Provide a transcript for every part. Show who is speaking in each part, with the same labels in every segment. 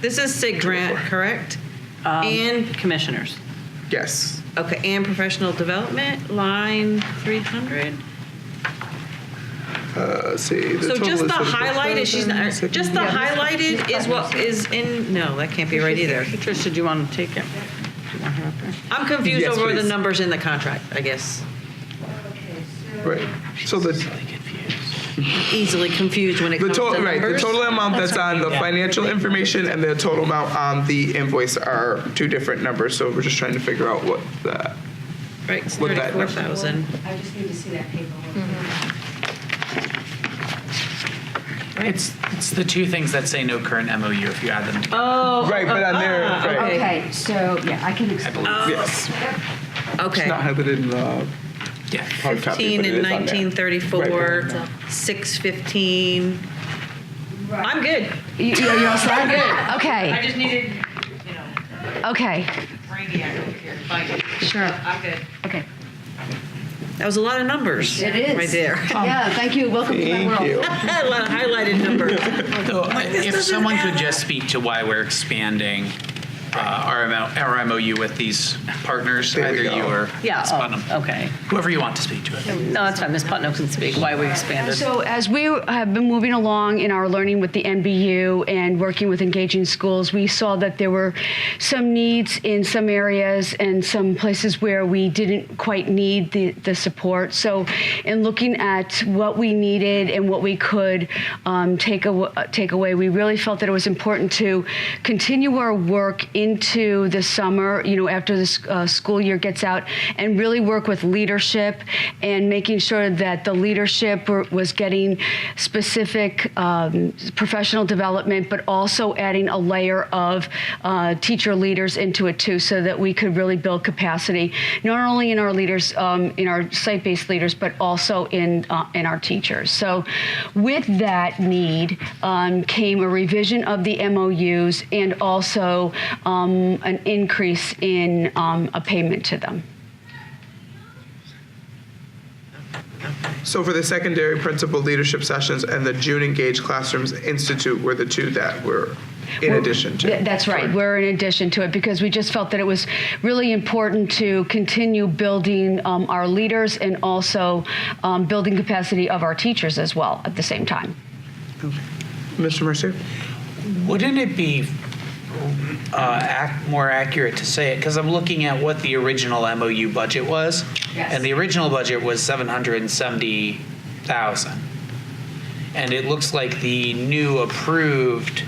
Speaker 1: This is SIG grant, correct? And
Speaker 2: Um, Commissioners.
Speaker 3: Yes.
Speaker 1: Okay, and professional development, line 300.
Speaker 3: Uh, see. The
Speaker 1: So
Speaker 3: total
Speaker 1: just
Speaker 3: is
Speaker 1: the
Speaker 3: seven point
Speaker 1: highlighted, she's not,
Speaker 3: seven, six-
Speaker 1: just the highlighted is what is in, no, that can't be right either.
Speaker 2: Patricia, do you want to take it? Do you want her up there?
Speaker 1: I'm confused
Speaker 3: Yes,
Speaker 1: over the
Speaker 3: please.
Speaker 1: numbers in the contract, I guess.
Speaker 3: Right. So the
Speaker 1: Easily confused when it
Speaker 3: The
Speaker 1: comes to
Speaker 3: total, right, the
Speaker 1: numbers.
Speaker 3: total amount that's on the financial information and the total amount on the invoice are two different numbers, so we're just trying to figure out what the,
Speaker 1: Right, it's
Speaker 3: With that number.
Speaker 1: 34,000,
Speaker 4: I just need to see that paperwork.
Speaker 5: It's, it's the two things that say no current MOU if you add them together.
Speaker 1: Oh,
Speaker 3: right, but on there,
Speaker 1: ah,
Speaker 3: right,
Speaker 4: Okay, so, yeah, I can
Speaker 5: I
Speaker 4: explain.
Speaker 5: believe.
Speaker 3: yes. It's not
Speaker 1: Oh, okay.
Speaker 3: highlighted in the
Speaker 2: Oh.
Speaker 5: Yeah.
Speaker 3: hard
Speaker 1: 15
Speaker 3: copy, but it
Speaker 1: and
Speaker 3: is on there.
Speaker 1: 1934, 615. I'm good.
Speaker 4: You, you you all set?
Speaker 6: I
Speaker 4: Okay,
Speaker 6: just needed, you know,
Speaker 4: okay,
Speaker 6: brainiac over here, like,
Speaker 4: sure,
Speaker 6: I'm good.
Speaker 4: okay.
Speaker 1: That was a lot of numbers.
Speaker 4: It is.
Speaker 1: Right there.
Speaker 4: Yeah, thank you, welcome to my
Speaker 3: Thank you.
Speaker 4: world.
Speaker 1: A lot of highlighted numbers.
Speaker 5: So if someone could just speak to why we're expanding uh, our MO our MOU with these partners,
Speaker 3: There we
Speaker 5: either you
Speaker 3: go.
Speaker 5: or
Speaker 2: Yeah,
Speaker 5: Ms. Putnam.
Speaker 2: oh, okay.
Speaker 5: Whoever you want to speak to it.
Speaker 2: No, that's fine. Ms. Putnam can speak why we expanded.
Speaker 4: So as we have been moving along in our learning with the NBU and working with engaging schools, we saw that there were some needs in some areas and some places where we didn't quite need the, the support. So in looking at what we needed and what we could um, take, aw- uh, take away, we really felt that it was important to continue our work into the summer, you know, after the s- uh, school year gets out, and really work with leadership and making sure that the leadership were, was getting specific um, professional development, but also adding a layer of uh, teacher leaders into it too, so that we could really build capacity, not only in our leaders, um, in our site-based leaders, but also in uh, in our teachers. So, with that need um, came a revision of the MOUs and also um, an increase in um, a payment to them.
Speaker 3: So for the secondary principal leadership sessions and the June Engage Classrooms Institute were the two that were in addition
Speaker 4: Th-
Speaker 3: to.
Speaker 4: That's right. We're in addition to it because we just felt that it was really important to continue building um, our leaders and also um, building capacity of our teachers as well at the same time.
Speaker 3: Mr. Mercer?
Speaker 7: Wouldn't it be uh, ac- more accurate to say it? Because I'm looking at what the original MOU budget was,
Speaker 4: Yes.
Speaker 7: and the original budget was seven hundred and seventy thousand, and it looks like the new approved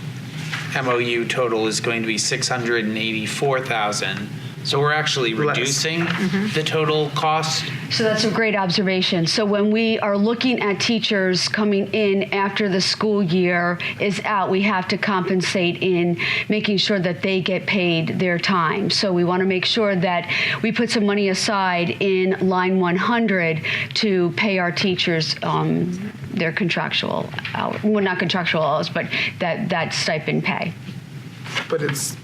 Speaker 7: MOU total is going to be six hundred and eighty-four thousand. So we're actually
Speaker 3: Less.
Speaker 7: reducing
Speaker 4: Mm-hmm.
Speaker 7: the total cost.
Speaker 4: So that's a great observation. So when we are looking at teachers coming in after the school year is out, we have to compensate in making sure that they get paid their time. So we want to make sure that we put some money aside in line 100 to pay our teachers um, their contractual hours, well, not contractual hours, but that, that stipend pay.
Speaker 3: But it's,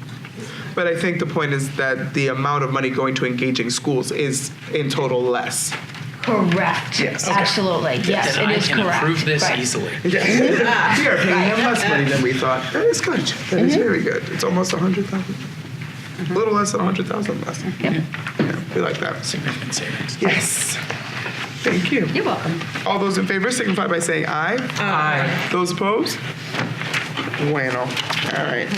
Speaker 3: but I think the point is that the amount of money going to engaging schools is in total less.
Speaker 4: Correct.
Speaker 3: Yes. Okay.
Speaker 4: Absolutely. Yes,
Speaker 5: Then
Speaker 4: it
Speaker 5: I
Speaker 4: is
Speaker 5: can
Speaker 4: correct.
Speaker 5: approve this
Speaker 4: Right.
Speaker 5: easily.
Speaker 3: We are paying him less money than we thought. Mm-hmm. That is good. That is very good. It's almost a hundred thousand. A little less than a hundred thousand less. Yeah. We like that.
Speaker 5: Significant savings.
Speaker 3: Yes. Thank you.
Speaker 4: You're welcome.
Speaker 3: All those in favor signify by saying aye. Aye. Those opposed? Bueno. All right.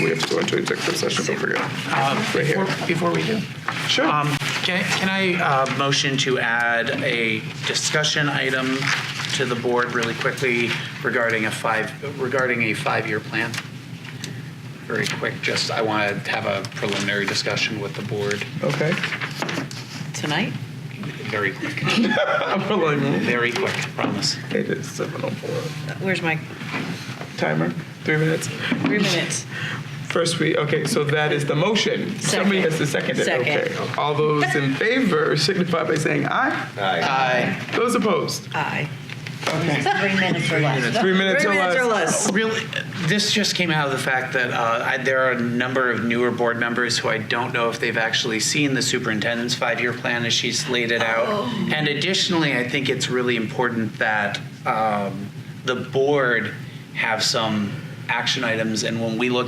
Speaker 3: We have to go into executive session, don't forget. Right here.
Speaker 7: Before- Before we do.
Speaker 3: Sure.
Speaker 7: Can, can I uh, motion to add a discussion item to the board really quickly regarding a five, regarding a five-year plan? Very quick, just, I want to have a preliminary discussion with the board,
Speaker 3: Okay.
Speaker 2: Tonight?
Speaker 7: very quick,
Speaker 3: I'm rolling.
Speaker 7: very quick, promise.
Speaker 3: It is 7:04.
Speaker 1: Where's my
Speaker 3: Timer, three minutes.
Speaker 1: three minutes?
Speaker 3: First, we, okay, so that is the motion. Somebody has to second it.
Speaker 1: Second.
Speaker 3: Okay. All those in favor signify by saying aye. Aye. Those opposed?
Speaker 1: Aye.
Speaker 6: Three minutes or less.
Speaker 3: Three minutes
Speaker 1: Three
Speaker 3: or
Speaker 1: minutes or
Speaker 3: less.
Speaker 1: less.
Speaker 7: Really, this just came out of the fact that uh, I, there are a number of newer board members who I don't know if they've actually seen the superintendent's five-year plan as she's laid it out. And additionally, I think it's really important that um, the board have some action items, and when we look